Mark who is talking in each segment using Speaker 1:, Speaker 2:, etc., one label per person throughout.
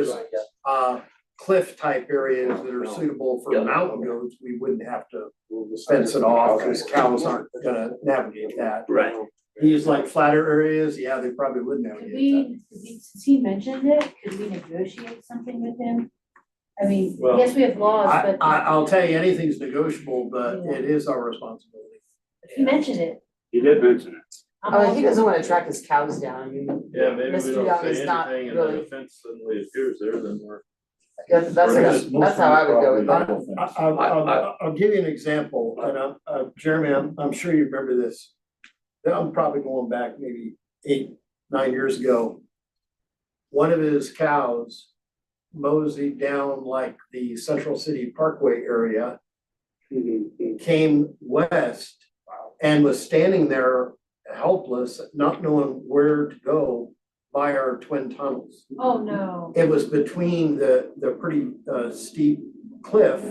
Speaker 1: is, uh, cliff type areas that are suitable for
Speaker 2: Yeah.
Speaker 1: mountain goats, we wouldn't have to fence it off, cause cows aren't gonna navigate that.
Speaker 2: Right.
Speaker 1: These like flatter areas, yeah, they probably would
Speaker 3: Could
Speaker 2: uh,
Speaker 1: navigate
Speaker 3: we, could we- since he mentioned it, could we negotiate something with him? I mean,
Speaker 2: Well,
Speaker 3: yes, we have
Speaker 1: that.
Speaker 3: laws,
Speaker 1: I,
Speaker 3: but.
Speaker 1: I, I'll tell you, anything's negotiable, but it is our responsibility.
Speaker 3: He mentioned it.
Speaker 2: He did mention it.
Speaker 3: I'm
Speaker 4: Oh,
Speaker 3: all
Speaker 4: he
Speaker 3: for
Speaker 4: doesn't
Speaker 3: it.
Speaker 4: wanna track his cows down, I mean,
Speaker 5: Yeah, maybe we
Speaker 4: Mr.
Speaker 5: don't
Speaker 4: Young
Speaker 5: say
Speaker 4: is not
Speaker 5: anything and then
Speaker 4: really-
Speaker 5: the fence suddenly appears there, then we're.
Speaker 4: that's, that's,
Speaker 5: Whereas
Speaker 4: how- that's how I would go with that.
Speaker 1: I, I'll, I'll, I'll give you an example, and I'm, uh, Jeremy, I'm, I'm sure you remember this. Then I'm probably going back maybe eight, nine years ago. One of his cows moseyed down like the Central City Parkway area, Mm-hmm. came west and was standing there helpless, not knowing where to go by our twin tunnels
Speaker 3: Oh, no.
Speaker 1: it was between the, the pretty uh, steep cliff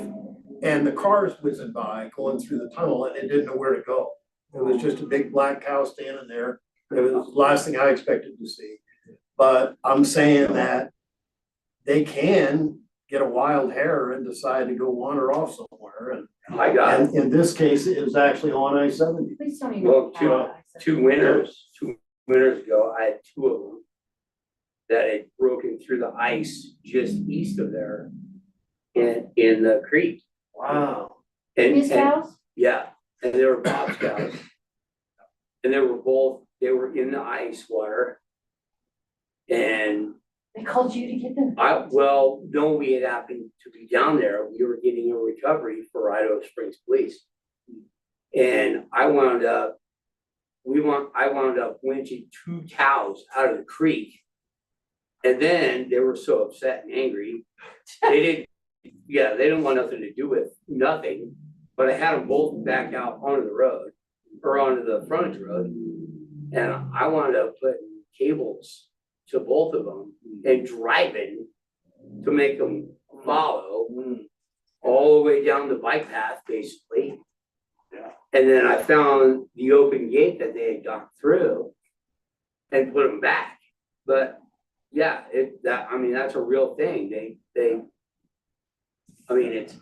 Speaker 1: and the cars whizzing by going through the tunnel and it didn't know where to go. It was just a big black cow standing there. It was the last thing I expected to see. But I'm saying that they can get a wild hair and decide to go wander off somewhere. And-
Speaker 2: I got
Speaker 1: And in this case, it was actually on I seventy.
Speaker 3: Please don't even.
Speaker 2: Well, two-
Speaker 3: apologize.
Speaker 2: two winters, two winters ago, I had two of them. That had broken through the ice just east of there. In, in the creek.
Speaker 1: Wow.
Speaker 2: And,
Speaker 3: His
Speaker 2: and-
Speaker 3: house?
Speaker 2: yeah, and they were Bob Scouts. And they were both, they were in the ice water. And
Speaker 3: They called you to get them?
Speaker 2: I, well, no, we had happened to be down there, we were getting a recovery for Idaho Springs Police. And I wound up, we want, I wound up winching two cows out of the creek. And then they were so upset and angry, they didn't, yeah, they didn't want nothing to do with nothing. But I had them both back out onto the road, or onto the frontage road. And I wound up putting cables to both of them and driving to make them follow
Speaker 5: Mm.
Speaker 2: all the way down the bike path, basically.
Speaker 5: Yeah.
Speaker 2: And then I found the open gate that they had gone through and put them back. But yeah, it, that, I mean, that's a real thing. They, they, I mean, it's,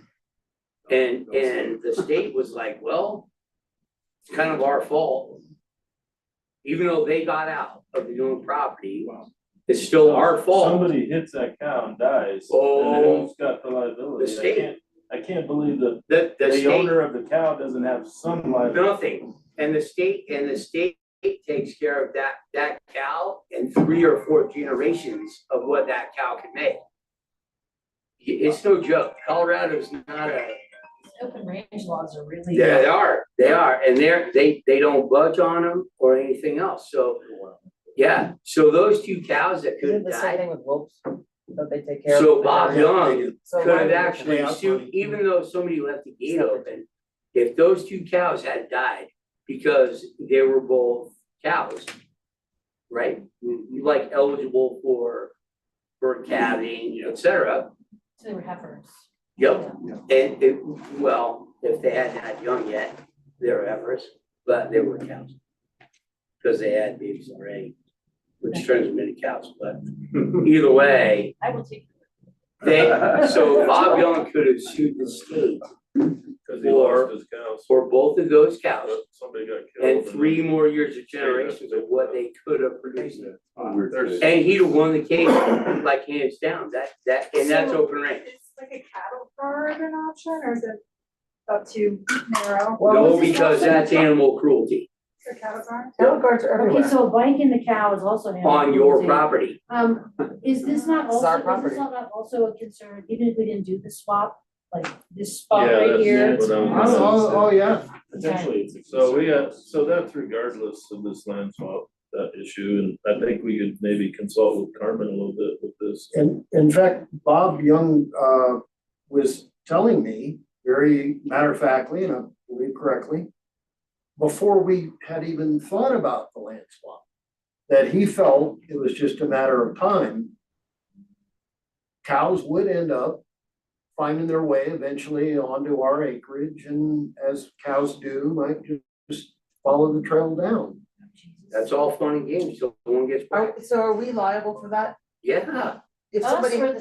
Speaker 2: and, and the state was like, well, it's kind of our fault. Even though they got out of the own property, it's still our fault.
Speaker 5: Somebody hits that cow and dies, and then
Speaker 2: Oh.
Speaker 5: who's got the liability?
Speaker 2: The
Speaker 5: I
Speaker 2: state.
Speaker 5: can't, I can't believe that
Speaker 2: The, the
Speaker 5: the
Speaker 2: state,
Speaker 5: owner of the cow doesn't have some liability.
Speaker 2: nothing, and the state, and the state takes care of that, that cow and three or four generations of what that cow can make. I- It's no joke, Colorado's not a,
Speaker 3: Open range laws are really.
Speaker 2: yeah, they are, they are, and they're, they, they don't budge on them or anything else, so. Yeah, so those two cows that could
Speaker 4: Is it
Speaker 2: have
Speaker 4: the same
Speaker 2: died,
Speaker 4: thing with wolves, that they take care of?
Speaker 2: so
Speaker 4: the
Speaker 2: Bob
Speaker 4: cows?
Speaker 2: Young
Speaker 4: So
Speaker 2: could
Speaker 4: why
Speaker 2: have
Speaker 4: would-
Speaker 2: actually
Speaker 1: out
Speaker 2: sued,
Speaker 1: money.
Speaker 2: even though somebody left the gate open, if those two cows had died, because they were both cows. Right, like eligible for, for calving, et cetera,
Speaker 3: So they were heifers.
Speaker 2: yep, and it, well, if they hadn't had young yet, they were heifers, but they were cows. Cause they had babies already, which turns them into cows, but either way.
Speaker 3: I will take.
Speaker 2: They, so Bob Young could have sued the state
Speaker 5: Cause he lost
Speaker 2: Or-
Speaker 5: his cows,
Speaker 2: for both of those cows
Speaker 5: but somebody got killed.
Speaker 2: and three more years of generations of what they could have produced.
Speaker 5: There's-
Speaker 2: And he'd have won the case like hands down, that, that, and that's open range.
Speaker 6: Is like a cattle guard an option or is it up to narrow?
Speaker 2: No, because that's animal cruelty
Speaker 6: A cattle guard?
Speaker 4: Cattle guards are
Speaker 3: Okay,
Speaker 4: everywhere,
Speaker 3: so a bike and the cow is also an animal.
Speaker 2: on your
Speaker 3: cruelty.
Speaker 2: property.
Speaker 3: Um, is this not
Speaker 4: It's our
Speaker 3: also, is
Speaker 4: property.
Speaker 3: this not also a concern, even if we didn't do the swap, like this
Speaker 5: Yeah,
Speaker 3: spot Oh, right
Speaker 5: that's
Speaker 3: here?
Speaker 5: what I'm-
Speaker 1: Oh, oh, oh, yeah.
Speaker 3: Potentially,
Speaker 5: So we got, so that's regardless of this land swap, that issue, and I think we could maybe consult with Carmen a little bit with this.
Speaker 1: In, in fact, Bob Young, uh, was telling me very matter of factly, and I believe correctly, before we had even thought about the land swap, that he felt it was just a matter of time. Cows would end up finding their way eventually onto our acreage, and as cows do, might ju- just follow the trail down.
Speaker 2: That's all fun and games, so no one gets,
Speaker 4: are, so are we liable for that?
Speaker 2: yeah,
Speaker 4: if
Speaker 3: Us
Speaker 4: somebody.
Speaker 3: or the